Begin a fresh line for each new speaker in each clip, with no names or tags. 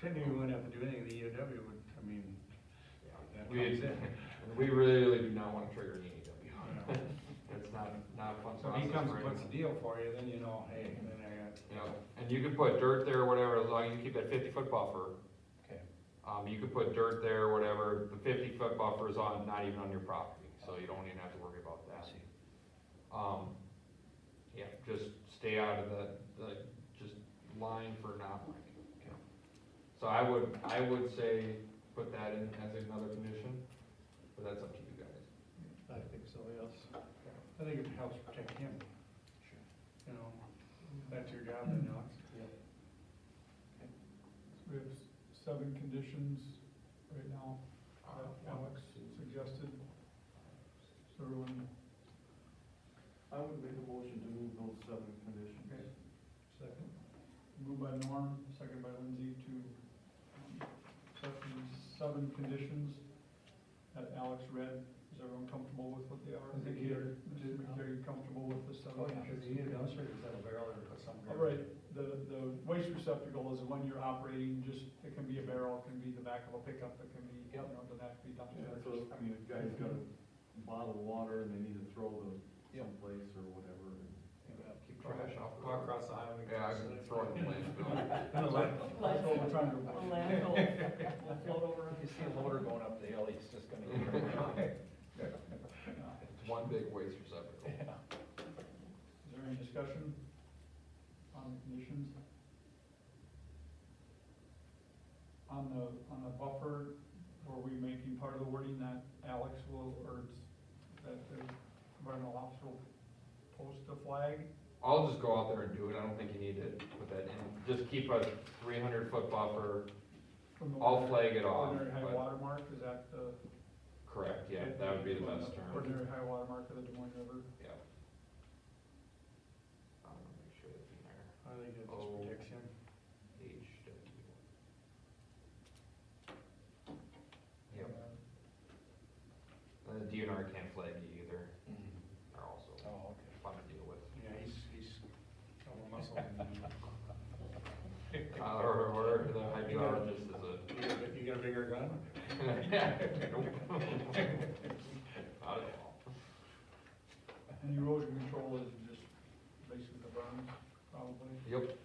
Didn't even went up and do anything, the EOW would, I mean, that
We,
comes in.
we really do not wanna trigger any
No.
EW. It's not, not a fun
So
process.
he comes
for
and puts a deal
anyone.
for you, then you know, hey, then I
You know, and you can put dirt there, whatever, as long as you keep that fifty foot buffer.
Okay.
Um, you could put dirt there, whatever, the fifty foot buffer is on, not even on your property, so you don't even have to worry about
got.
that. Um, yeah, just stay out of the, the, just line for not
Okay.
like. So I would, I would say put that in as another condition, but that's up to you guys.
I think so, yes. I think it helps protect him. You know, that's your job, then, Alex.
We have s- seven conditions right now that Alex suggested. So everyone,
I would make a motion to move those seven conditions.
Okay. second, moved by Norm, second by Lindsay to um, set these seven conditions that Alex read. Is everyone comfortable with what they are?
I think you're-
Are you comfortable with the seven?
Cause the EOW service had a barrel there, put some.
All right, the, the waste receptacle is the one you're operating, just, it can be a barrel, it can be the back of a pickup, it can be, you know, doesn't have to be dumped.
Yeah, so, I mean, if guys got a bottle of water and they need to throw them someplace or whatever.
Keep
Trash,
trash off. the
walk
road.
across the highway.
Yeah, I can throw it in the landfill.
And the light-
That's what we're trying to avoid.
If you see a loader going up the hill, he's just gonna get it.
It's one big waste receptacle.
Is there any discussion on the conditions? On the, on the buffer, were we making part of the wording that Alex will, or that the environmental officer will post a flag?
I'll just go out there and do it, I don't think you need to put that in, just keep a three hundred foot buffer,
from the
I'll flag it off,
Ordinary high
but,
watermark, is that the?
correct, yeah, that would be the best term,
Ordinary high watermark of the Des Moines River.
yeah. I'm gonna make sure that's in there.
I think that just
Oh.
protects him.
HW. Yep, Uh, and the DNR can't flag you either, they're also
Oh, okay.
fun to deal with.
Yeah, he's, he's got more muscle than you.
Uh, or, or the hydrologist is a
You got a big- You got a bigger gun?
Not at all.
And erosion control is just basically the berms, probably.
Yep,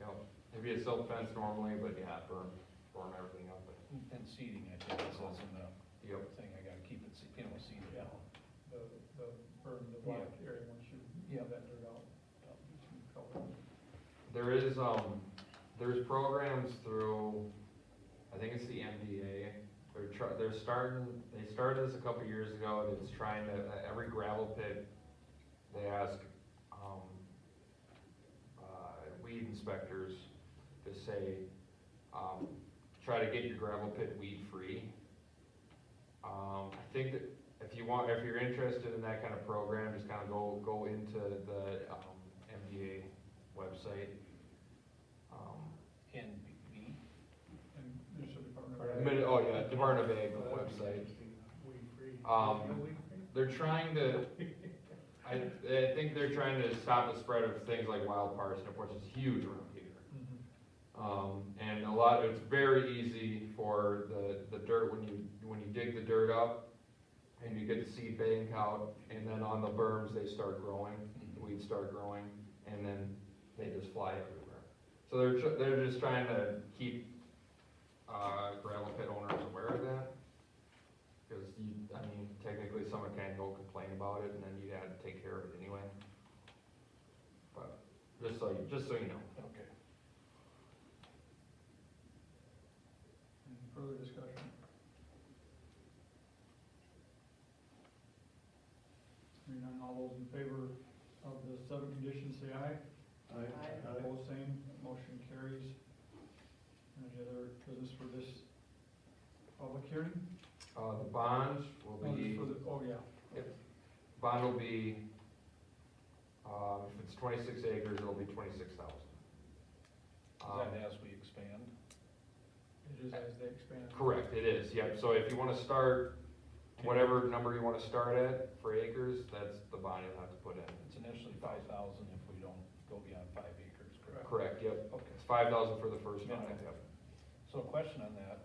yep, it'd be a silk fence normally, but yeah, burn, burn everything up, but,
And seating, I think, is also the
yep,
thing, I gotta keep it, se- you know, seated.
Yeah. The, the berm, the black area, once you
Yeah.
have that dirt out. um, you can cover it.
there is, um, there's programs through, I think it's the MDA. They're try, they're starting, they started this a couple years ago, and it's trying to, uh, every gravel pit, they ask, um, uh, weed inspectors to say, um, try to get your gravel pit weed free. Um, I think that if you want, if you're interested in that kind of program, just kind of go, go into the, um, MDA website. Um,
And B- B,
And there should be part of
Part
it.
of
Mid- oh yeah, Department of Ag website.
Weed free.
Um,
You know weed free?
They're trying to, I, I think they're trying to stop the spread of things like wild parsnip, which is huge around here.
Mhm.
Um, and a lot, it's very easy for the, the dirt, when you, when you dig the dirt up and you get the seed bank out, and then on the berms, they start growing, the weeds start growing, and then they just fly everywhere. So they're, tr- they're just trying to keep, uh, gravel pit owners aware of that. Cause you, I mean, technically someone can go complain about it, and then you had to take care of it anyway. But, just so, you just so you know.
okay.
Any further discussion? Hearing none, all those in favor of the seven conditions, say aye.
I, I,
Opposed, same, motion carries. Any other business for this public hearing?
Uh, the bonds
Oh,
will
this
be,
for the- Oh, yeah.
bond will be, um, if it's twenty-six acres, it'll be twenty-six thousand. Um,
Is that as we expand?
It is as they expand.
Correct, it is, yep, so if you wanna start, whatever number you wanna start at for acres, that's the bond you'll have to put in.
It's initially five thousand if we don't go beyond five acres, correct?
Correct, yep,
Okay.
it's five thousand for the first one,
Yeah.
yep.
So a question on that,